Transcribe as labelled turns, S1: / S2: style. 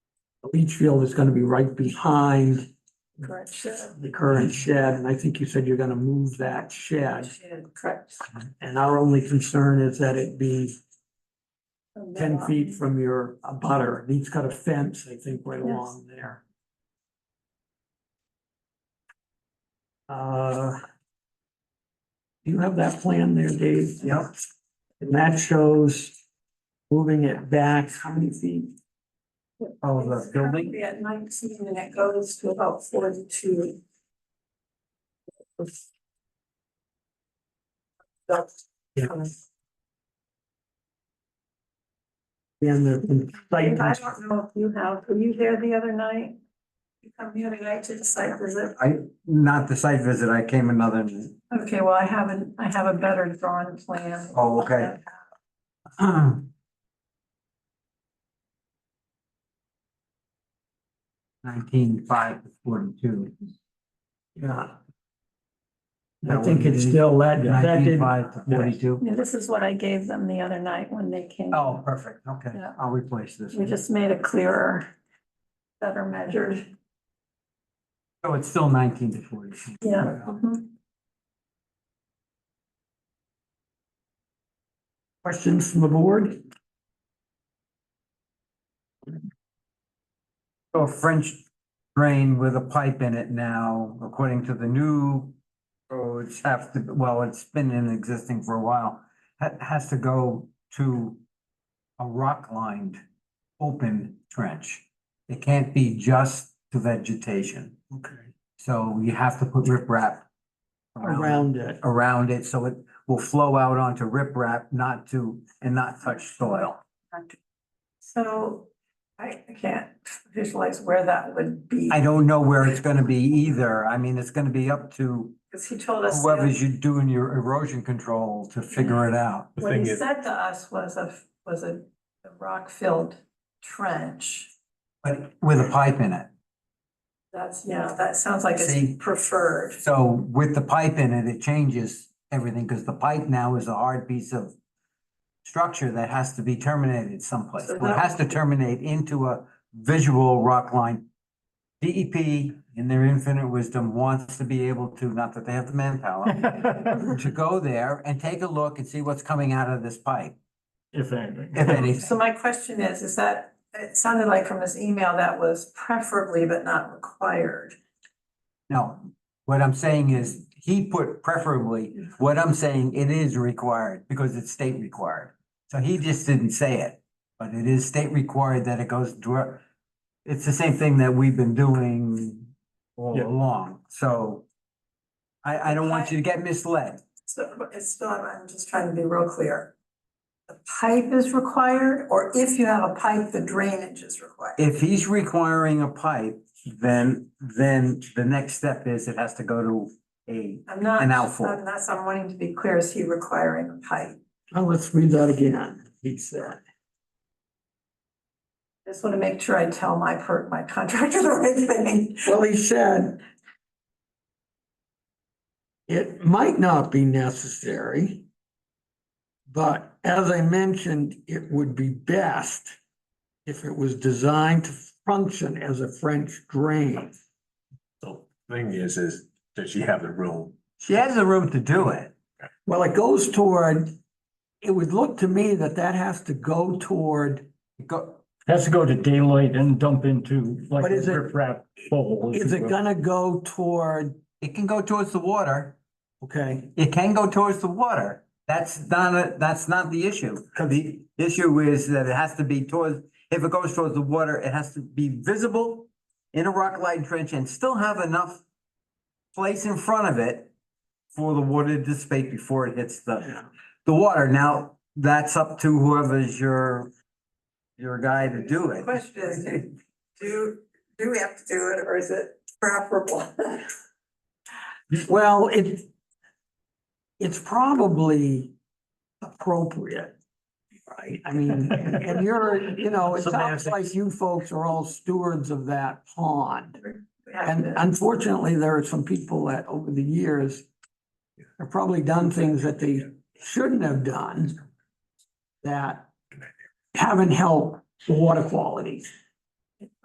S1: leach field is gonna be right behind
S2: Correct, shed,
S1: the current shed, and I think you said you're gonna move that shed.
S2: shed, correct.
S1: And our only concern is that it be
S2: And
S1: ten
S2: then,
S1: feet from your butter. He's got a fence, I think, right
S2: Yes.
S1: along there. Uh. Do you have that plan there, Dave? Yep. And that shows moving it back, how many feet? Oh, the
S2: It's
S1: building?
S2: currently At nineteen and it goes to about forty-two. That's-
S1: Yeah. And the site,
S2: I don't know if you have, were you there the other night? You come the other night to the site visit?
S3: I, not the site visit, I came another,
S2: Okay, well, I haven't, I have a better drawn plan.
S3: Oh, okay.
S1: um,
S3: nineteen five to forty-two.
S1: yeah. I
S3: That
S1: think
S3: would
S1: it's
S3: be
S1: still that, that
S3: Nineteen
S1: did,
S3: five to forty-two.
S2: Yeah, this is what I gave them the other night when they came.
S3: Oh, perfect, okay,
S2: Yeah.
S3: I'll replace this.
S2: We
S3: one.
S2: just made it clearer, better measured,
S3: So it's still nineteen to forty-two.
S2: yeah. mhm.
S1: questions from the board?
S3: So a French drain with a pipe in it now, according to the new roads, have to, well, it's been in existing for a while. ha- has to go to a rock-lined, open trench. It can't be just to vegetation.
S1: Okay.
S3: So you have to put riprap around,
S1: Around it.
S3: around it, so it will flow out onto riprap, not to, and not touch soil.
S2: So I I can't visualize where that would be,
S3: I don't know where it's gonna be either. I mean, it's gonna be up to
S2: because he told us. the other-
S3: whoever's you doing your erosion control to figure it out.
S4: The
S2: What
S4: thing
S2: he
S4: is,
S2: said to us was a, was a a rock-filled trench.
S3: But with a pipe in it.
S2: That's, you know, that sounds like
S3: See?
S2: it's preferred.
S3: So with the pipe in it, it changes everything, because the pipe now is a hard piece of structure that has to be terminated someplace.
S2: So
S3: It
S2: that-
S3: has to terminate into a visual rock line. DEP, in their infinite wisdom, wants to be able to, not that they have the manpower, to go there and take a look and see what's coming out of this pipe,
S4: if anything.
S3: if
S2: So
S3: anything.
S2: my question is, is that, it sounded like from this email that was preferably but not required.
S3: No, what I'm saying is, he put preferably, what I'm saying, it is required, because it's state required. So he just didn't say it, but it is state required that it goes to, it's the same thing that we've been doing all
S4: Yeah.
S3: along, so. I, I don't want you to get misled.
S2: So but it's still, I'm I'm just trying to be real clear. The pipe is required, or if you have a pipe, the drainage is required.
S3: If he's requiring a pipe, then, then the next step is it has to go to a,
S2: I'm not,
S3: An outfall.
S2: unless I'm wanting to be clear, is he requiring a pipe?
S1: Now let's read that again. He said.
S2: Just want to make sure I tell my per, my contractor the right thing.
S1: Well, he said. It might not be necessary. But as I mentioned, it would be best if it was designed to function as a French drain.
S4: The Thing is, is does she have the room?
S3: she has the room to do it.
S1: Well, it goes toward, it would look to me that that has to go toward,
S3: Go,
S5: Has to go to daylight and dump into like
S1: But
S5: a
S1: is it-
S5: riprap bowl. if
S1: is
S5: you
S1: it
S5: will.
S1: gonna go toward,
S3: it can go towards the water.
S1: okay,
S3: It can go towards the water. That's not, a- that's not the issue. The issue is that it has to be towards, if it goes towards the water, it has to be visible in a rock lined trench and still have enough place in front of it for the water to dissipate before it hits the,
S1: Yeah.
S3: the water. Now, that's up to whoever's your, your guy to do
S2: The
S3: it.
S2: Question is, do, do we have to do it or is it preferable?
S1: Well, it, it's probably appropriate, right? I mean, and and you're, you know, it sounds like you folks are all stewards of that pond.
S2: We have
S1: And
S2: to-
S1: unfortunately, there are some people that over the years have probably done things that they shouldn't have done that haven't helped the water quality.